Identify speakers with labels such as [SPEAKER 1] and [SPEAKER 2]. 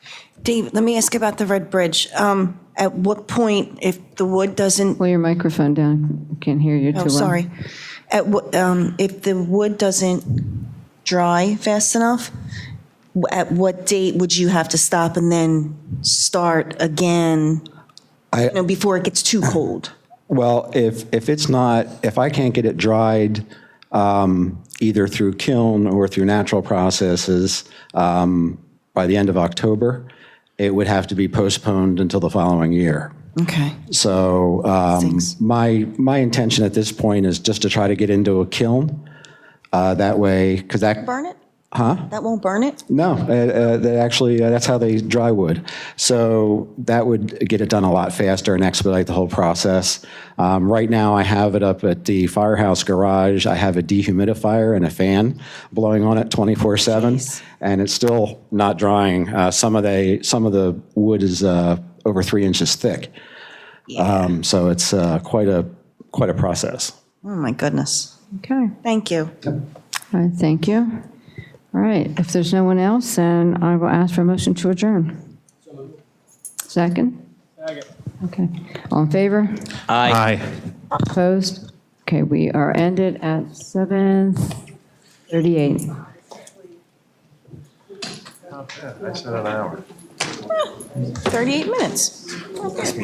[SPEAKER 1] Dave, let me ask about the Red Bridge. Um, At what point, if the wood doesn't,
[SPEAKER 2] Pull your microphone down, can't hear you too
[SPEAKER 1] oh,
[SPEAKER 2] well.
[SPEAKER 1] sorry, at what, um, if the wood doesn't dry fast enough, w- at what date would you have to stop and then start again,
[SPEAKER 3] I-
[SPEAKER 1] you know, before it gets too cold?
[SPEAKER 3] Well, if, if it's not, if I can't get it dried, um, either through kiln or through natural processes, um, by the end of October, it would have to be postponed until the following year.
[SPEAKER 1] Okay.
[SPEAKER 3] So um,
[SPEAKER 1] Stinks.
[SPEAKER 3] my, my intention at this point is just to try to get into a kiln. uh, That way, because that,
[SPEAKER 1] Burn it? Huh? That won't burn it?
[SPEAKER 3] no, uh, uh, that actually, uh, that's how they dry wood. So that would get it done a lot faster and expedite the whole process. Um, Right now, I have it up at the firehouse garage. I have a dehumidifier and a fan blowing on it 24/7, and it's still not drying. Uh, Some of the, some of the wood is uh, over three inches thick. Um, So it's uh, quite a, quite a process.
[SPEAKER 1] Oh, my goodness.
[SPEAKER 2] Okay,
[SPEAKER 1] Thank you.
[SPEAKER 2] all right, thank you. All right, if there's no one else, then I will ask for a motion to adjourn. Second? Second. Okay, all in favor?
[SPEAKER 4] Aye.
[SPEAKER 2] Opposed? Okay, we are ended at 7:38.
[SPEAKER 1] Thirty-eight minutes.